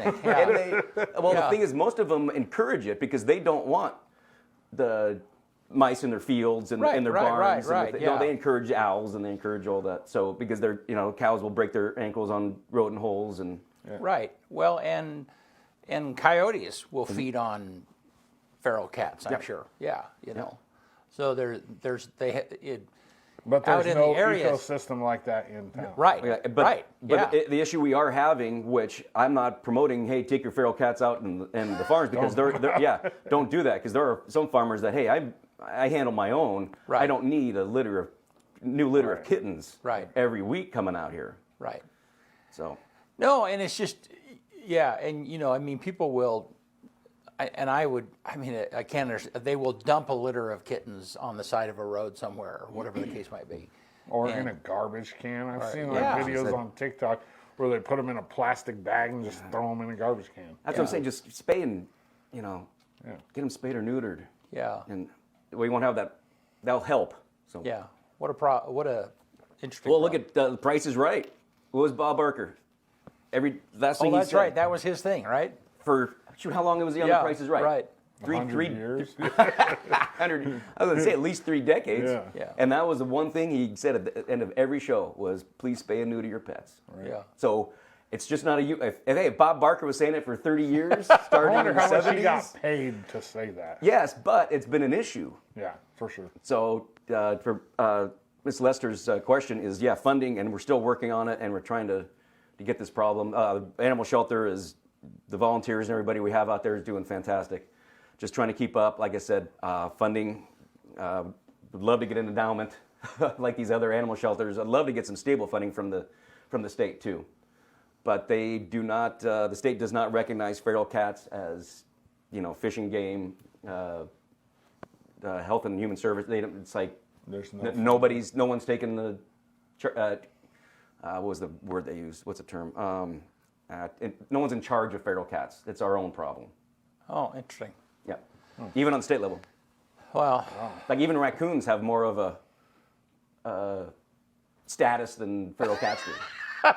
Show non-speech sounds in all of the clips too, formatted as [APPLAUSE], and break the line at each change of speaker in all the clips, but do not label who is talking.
[LAUGHS]
And [LAUGHS] they, well, the thing is, most of them encourage it because they don't want the mice in their fields and
Right,
in their
right, right,
barns. and the
right,
thi-
yeah.
No, they encourage owls and they encourage all that. So because they're you know cows will break their ankles on rodent holes and
Right. Well, and and coyotes
Mm-hmm.
will feed on feral cats. I'm
Yep.
sure. Yeah. You know. So there, there's they. ha- It,
But
Out
there's
in
no
the areas.
ecosystem like that in town.
right.
Yeah, but,
right.
But
yeah.
i- the issue we are having, which I'm not promoting, hey, take your feral cats out in, in the farms because they're,
[LAUGHS]
they're yeah, don't do that because there are some farmers that hey, I I handle my own. I
Right.
don't need a litter of new litter of kittens
Right.
every week coming out here.
right.
So
No, and it's just, yeah, and you know, I mean, people will, I, and I would, I mean, I- I can't understand. They will dump a litter of kittens on the side of a road somewhere, or whatever the case might be.
Or in
And-
a garbage can. I've seen like
Yeah.
videos on TikTok where they put them in a plastic bag and just throw them in a garbage can.
Uh,
that's what I'm saying. Just spay and you know,
Yeah.
get them spayed or neutered.
Yeah.
and we won't have that. That'll help. So
Yeah, what a pro, what a interesting.
Well, look
problem.
at uh, the Price is Right. What was Bob Barker? Every last thing
Oh,
he
that's
said.
right. That was his thing, right?
for shoot, how long was he on
Yeah,
the Price is Right?
right.
Three,
100
three [LAUGHS]
years.
hundred. I was gonna say at least three decades.
Yeah.
Yeah.
And that was the one thing he said at the end of every show was, "Please spay and neuter your pets."
Yeah.
So it's just not a you. If, if, hey, if Bob Barker was saying it for thirty
[LAUGHS]
years, starting
I wonder
in the
how much he
seventies.
got paid to say that.
Yes, but it's been an issue.
Yeah, for sure.
So uh, for uh, Ms. Lester's uh, question is, yeah, funding, and we're still working on it, and we're trying to, to get this problem. Uh, animal shelter is the volunteers and everybody we have out there is doing fantastic. Just trying to keep up. Like I said, uh, funding. Uh, would love to get an endowment [LAUGHS] like these other animal shelters. I'd love to get some stable funding from the from the state too, but they do not. Uh, the state does not recognize feral cats as, you know, fishing game. Uh, uh, Health and Human Service. They don't, it's like
There's no-
n- nobody's, no one's taking the, char- uh, uh, what was the word they used? What's the term? Um, uh, it, no one's in charge of feral cats. It's our own problem.
Oh, interesting.
Yeah,
Hmm.
even on the state level.
Well,
Like even raccoons have more of a uh, status than feral cats do.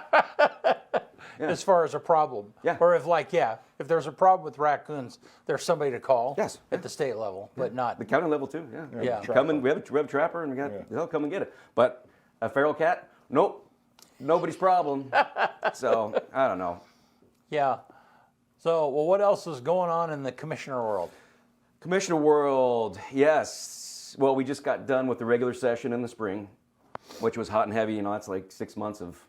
as far as a problem,
Yeah.
or if like, yeah, if there's a problem with raccoons, there's somebody to call.
Yes,
at
yeah.
the state level, but not.
The county level too. Yeah.
Yeah.
You Come and we have a, we have a trapper and we got they'll come and get it. But a feral cat, nope, nobody's problem. [LAUGHS] so I don't know.
Yeah. So, well, what else is going on in the commissioner world?
Commissioner World, yes. Well, we just got done with the regular session in the spring, which was hot and heavy. You know, that's like six months of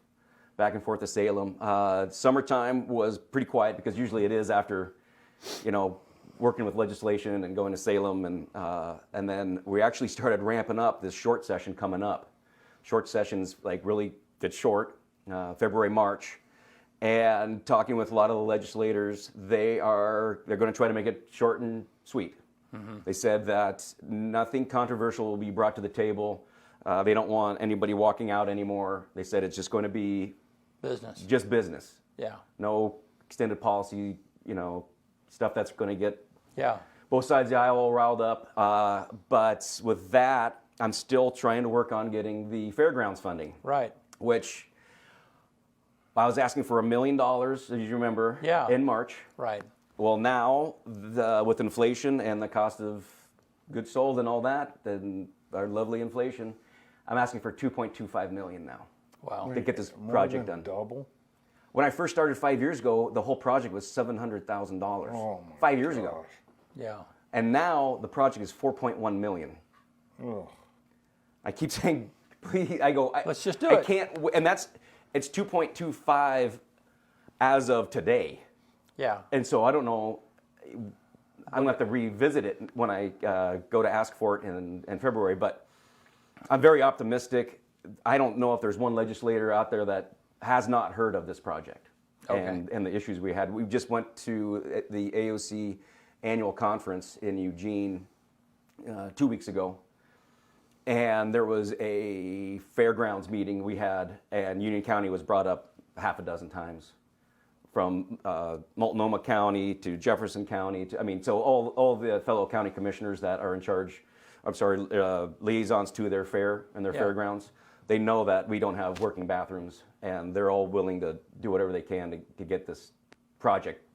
back and forth to Salem. Uh, summertime was pretty quiet because usually it is after, you know, working with legislation and going to Salem, and uh, and then we actually started ramping up this short session coming up. Short sessions like really get short, uh, February, March and talking with a lot of the legislators, they are they're going to try to make it short and sweet. They said that nothing controversial will be brought to the table. Uh, they don't want anybody walking out anymore. They said it's just going to be
Business.
just business.
Yeah.
No extended policy, you know, stuff that's going to get
Yeah.
both sides of the aisle all riled up. Uh, but with that, I'm still trying to work on getting the fairgrounds funding
Right.
which I was asking for a million dollars, as you remember,
Yeah.
in March.
Right.
Well, now the, with inflation and the cost of goods sold and all that, then our lovely inflation, I'm asking for 2.25 million now
Wow.
to get this
More
project
than
done.
Double.
When I first started five years ago, the whole project was $700,000.
Oh
dollars
my
five years ago,
Yeah.
and now the project is 4.1 million.
Ugh.
I keep [LAUGHS] saying, please. I go. I,
Let's just do
I
it.
can't. w- And that's it's 2.25 as of today,
Yeah.
and so I don't know. I'm gonna have to revisit it when I uh, go to ask for it in, in February. But I'm very optimistic. I don't know if there's one legislator out there that has not heard of this project
Okay.
and, and the issues we had. We just went to uh, the AOC annual conference in Eugene uh, two weeks ago, and there was a fairgrounds meeting we had, and Union County was brought up half a dozen times, from uh, Multnomah County to Jefferson County. To, I mean, so all all the fellow county commissioners that are in charge, I'm sorry, uh, liaisons to their fair and their
Yeah.
fairgrounds, they know that we don't have working bathrooms, and they're all willing to do whatever they can to, to get this project